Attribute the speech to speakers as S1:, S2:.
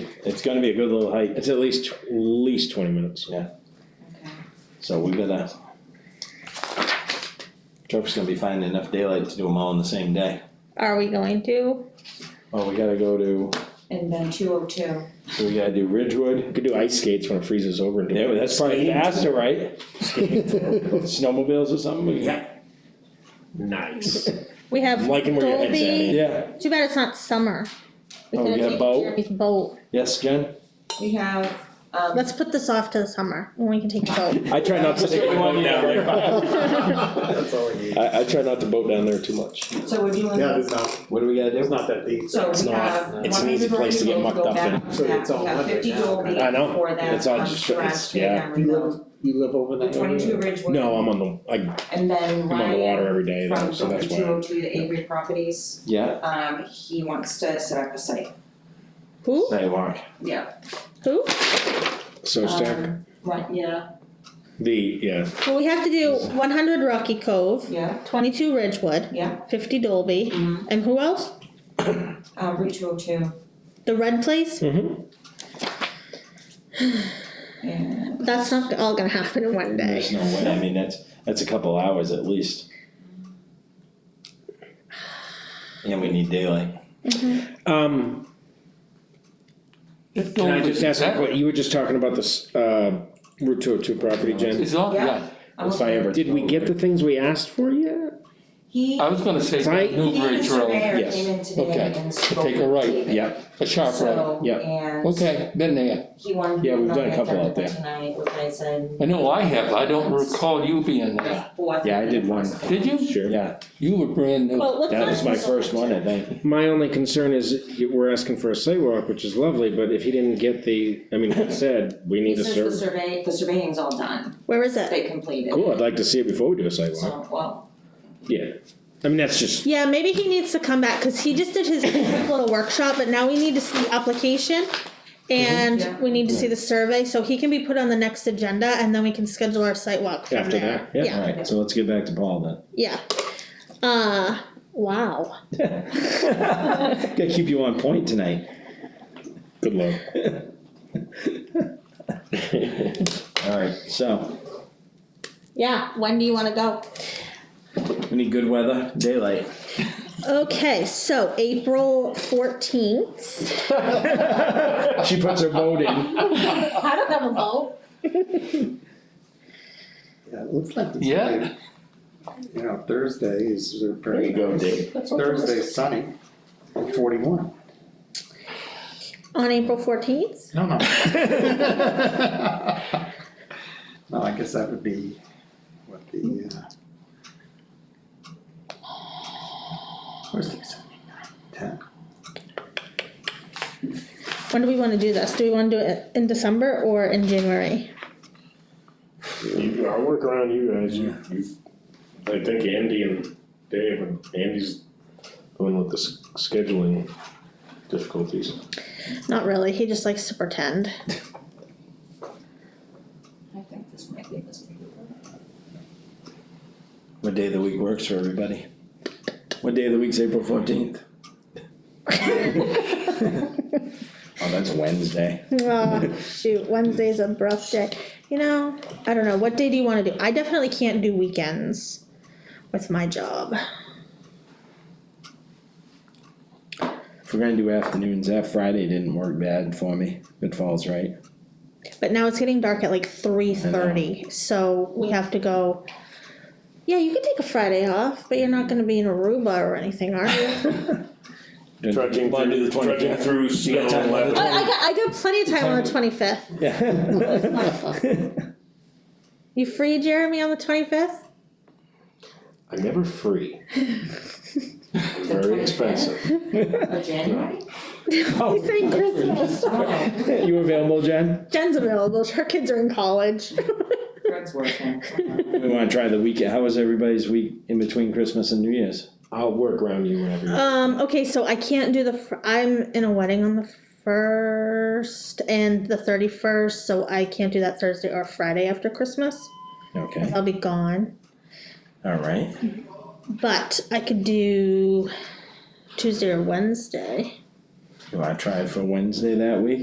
S1: It's gonna be a good little hike,
S2: It's at least, at least twenty minutes.
S1: Yeah.
S3: okay.
S1: so we gotta. Trump's gonna be finding enough daylight to do them all in the same day.
S4: Are we going to?
S1: Oh, we gotta go to,
S3: And then two oh two.
S1: so we gotta do Ridgewood,
S2: We could do ice skates when it freezes over and do.
S1: yeah, well, that's probably faster, right? Snowmobiles or something? we-
S2: Yeah. Nice.
S4: We have
S2: I'm liking where your head's at,
S4: Dolby.
S1: Yeah,
S4: Too bad it's not summer. We
S1: Oh,
S4: could
S1: we got a
S4: have taken
S1: boat?
S4: Jeremy's boat.
S1: yes, Jen?
S3: We have, um.
S4: Let's put this off to the summer when we can take the boat.
S2: I try not to
S1: Just
S2: take the
S1: get one
S2: boat down
S1: down.
S2: there.
S5: That's all we need.
S2: I, I try not to boat down there too much.
S3: So we're doing,
S5: Yeah, it's not,
S1: What do we gotta
S5: it's
S1: do?
S5: not that deep.
S3: so
S2: it's
S3: we
S2: not-
S3: have one
S2: it's an
S3: hundred
S2: easy place to
S3: ready
S2: get
S3: to
S2: mucked
S3: go
S2: up
S3: back
S2: in.
S3: on
S5: So
S3: that,
S5: it's all
S3: we have
S5: hundred
S3: fifty
S5: now,
S3: Dolby
S2: I know.
S3: for that.
S2: It's all
S3: on
S2: just- it's-
S3: Strasbourg
S2: yeah.
S3: and
S5: You
S3: Remote.
S5: live, you live over
S3: The
S5: there?
S3: twenty-two Ridgewood.
S2: No, I'm on the, I,
S3: And
S2: I'm
S3: then
S2: on the water
S3: Ryan
S2: every day, though,
S3: from
S2: so
S3: Dolby
S2: that's
S3: two
S2: why.
S3: oh two, the Avery Properties,
S1: Yeah,
S3: um, he wants to set up a site,
S4: Who?
S1: sidewalk,
S3: yeah.
S4: Who?
S2: So stack
S3: Um, Right, yeah,
S2: the, yeah,
S4: Well, we have to do one hundred Rocky Cove,
S3: yeah,
S4: twenty-two Ridgewood,
S3: yeah,
S4: fifty Dolby,
S6: Mm-hmm.
S3: mhm,
S4: and who else?
S3: uh, Route two oh two,
S4: The Red Place?
S2: Mm-hmm.
S3: and
S4: That's not all gonna happen in one day.
S1: there's no way, I mean, that's, that's a couple hours at least. And we need daylight. Mm-hmm.
S2: Um. Can I just ask, you what, you were just talking about this, uh, Route two oh two property, Jen?
S6: It's all,
S3: Yeah.
S6: yeah,
S3: I'm
S1: If I
S3: okay.
S1: ever.
S2: Did we get the things we asked for yet?
S3: He,
S6: I was gonna say
S2: Right.
S6: New
S3: he and the
S6: Bridge Road,
S3: surveyor
S2: yes,
S3: came in today
S6: okay,
S3: and
S6: to
S3: spoke
S6: take a
S3: with
S6: right,
S3: David.
S2: Yeah,
S6: a sharp right.
S3: So,
S2: Yeah.
S3: and
S6: Okay, been there.
S3: he wanted
S1: Yeah,
S3: to
S1: we've
S3: put
S1: done a
S3: on
S1: couple
S3: the
S1: out there.
S3: agenda for tonight, which I said.
S6: I know I have, I don't recall you being there.
S3: Fourth.
S1: Yeah, I did one.
S6: Did you?
S2: Sure.
S1: Yeah,
S6: You were brand new.
S4: Well, let's
S1: that
S4: not.
S1: was my first one, I think.
S2: My only concern is you- we're asking for a sidewalk, which is lovely, but if he didn't get the, I mean, he said, we
S3: He
S2: need a
S3: says the
S2: survey.
S3: survey, the surveying's all done,
S4: Where is it?
S3: they completed.
S2: Cool, I'd like to see it before we do a sidewalk,
S3: So, well,
S2: yeah. I mean, that's just,
S4: Yeah, maybe he needs to come back, cause he just did his quick little workshop, but now we need to see the application.
S3: Yeah.
S4: And we need to see the survey, so he can be put on the next agenda and then we can schedule our site walk from
S2: After
S4: there.
S2: that, yeah.
S1: Alright, so let's get back to Paul then.
S4: Yeah, yeah. Uh, wow.
S1: Gotta keep you on point tonight.
S2: good luck.
S1: Alright, so,
S4: Yeah, when do you wanna go?
S1: we need good weather, daylight.
S4: Okay, so April fourteenth.
S1: She puts her boat in.
S4: I don't have a vote.
S5: Yeah, it looks like it's.
S6: Yeah.
S5: You know, Thursday is
S1: There
S5: pretty.
S1: you go, Dick.
S5: Thursday's sunny, forty-one.
S4: On April fourteenth?
S5: No, no. No, I guess that would be what the, uh. Thursday, Sunday, ten.
S4: When do we wanna do this? Do we wanna do it in December or in January?
S7: You, I'll work around you guys, you, you, I think Andy and Dave, and Andy's going with the s- scheduling difficulties.
S4: Not really, he just likes to pretend.
S3: I think this might be this week.
S1: What day of the week works for everybody? What day of the week's April fourteenth? Oh, that's Wednesday.
S4: Oh, shoot, Wednesday's a rough day. You know, I don't know. What day do you want to do? I definitely can't do weekends with my job.
S1: If we're gonna do afternoons, that Friday didn't work bad for me. Good Falls, right?
S4: But now it's getting dark at like three thirty, so we have to go. Yeah, you could take a Friday off, but you're not going to be in Aruba or anything, are you?
S7: Trudging
S1: Wanna do
S7: through,
S1: the 25th?
S7: trudging through snow
S1: got time
S7: and
S1: on the
S4: I,
S7: weather.
S4: I got I got plenty of time on the twenty fifth.
S1: Yeah.
S4: You free, Jeremy, on the twenty fifth?
S7: I'm never free. Very expensive.
S3: Oh, January?
S2: Oh,
S4: He's saying Christmas.
S3: Oh,
S1: You available, Jen?
S4: Jen's available. Her kids are in college.
S3: Greg's working.
S1: We wanna try the weekend. How was everybody's week in between Christmas and New Year's?
S2: I'll work around you whenever you.
S4: Um, okay, so I can't do the, fir- I'm in a wedding on the first and the thirty-first, so I can't do that Thursday or Friday after Christmas.
S1: Okay,
S4: I'll be gone,
S1: alright.
S4: but I could do Tuesday or Wednesday.
S1: You wanna try it for Wednesday that week?